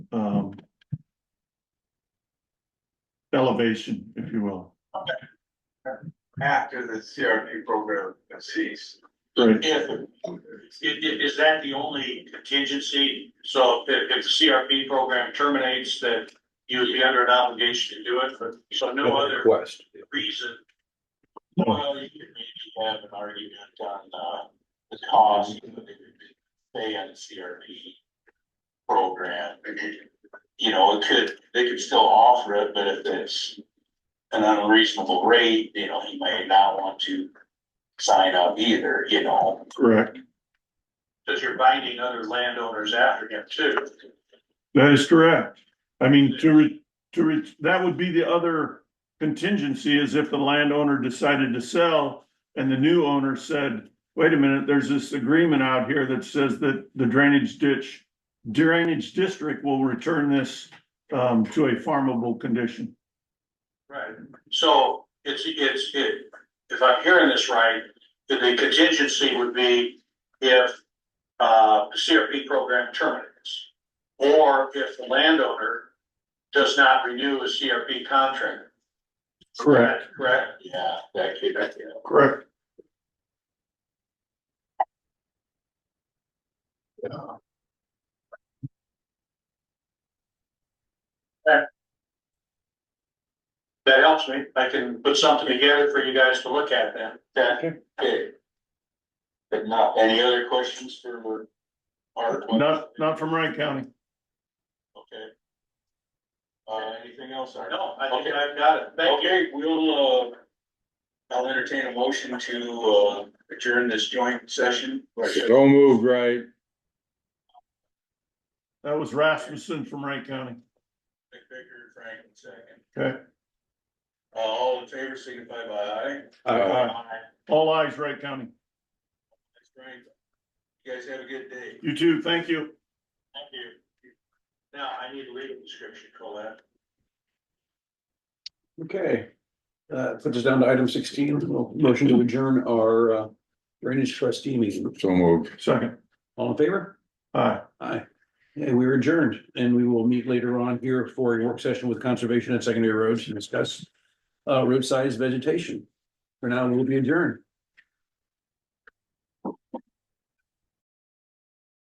um, elevation, if you will. after the CRP program ceased. Right. If, i- i- is that the only contingency? So if, if the CRP program terminates, that you would be under an obligation to do it, but so no other Request. reason? No. Well, you could maybe have an argument on, uh, the cost of the, pay on the CRP program. You know, it could, they could still offer it, but if it's an unreasonable rate, you know, he may not want to sign up either, you know? Correct. Cause you're binding other landowners after him too. That is correct. I mean, to re, to re, that would be the other contingency is if the landowner decided to sell and the new owner said, wait a minute, there's this agreement out here that says that the drainage ditch drainage district will return this um to a farmable condition. Right. So it's, it's, it, if I'm hearing this right, the- the contingency would be if, uh, the CRP program terminates. Or if the landowner does not renew a CRP contract. Correct? Yeah, that could, that could. Correct. That helps me. I can put something together for you guys to look at then. That, okay. But not, any other questions for Art? Not, not from Wright County. Okay. Uh, anything else? No, I think I've got it. Thank you. Okay, we'll, uh, I'll entertain a motion to, uh, adjourn this joint session. Don't move, right? That was Rasmussen from Wright County. Nick Baker, Frank, and second. Okay. Uh, all in favor, signify by aye. Uh, All eyes Wright County. Thanks, Frank. You guys have a good day. You too. Thank you. Thank you. Now, I need a legal description, Colette. Okay, uh, puts us down to item sixteen, motion to adjourn our uh, drainage trustee meeting. So moved. Second. All in favor? Aye. Aye. And we are adjourned and we will meet later on here for a work session with conservation and secondary roads and discuss uh, road size vegetation. For now, we'll be adjourned.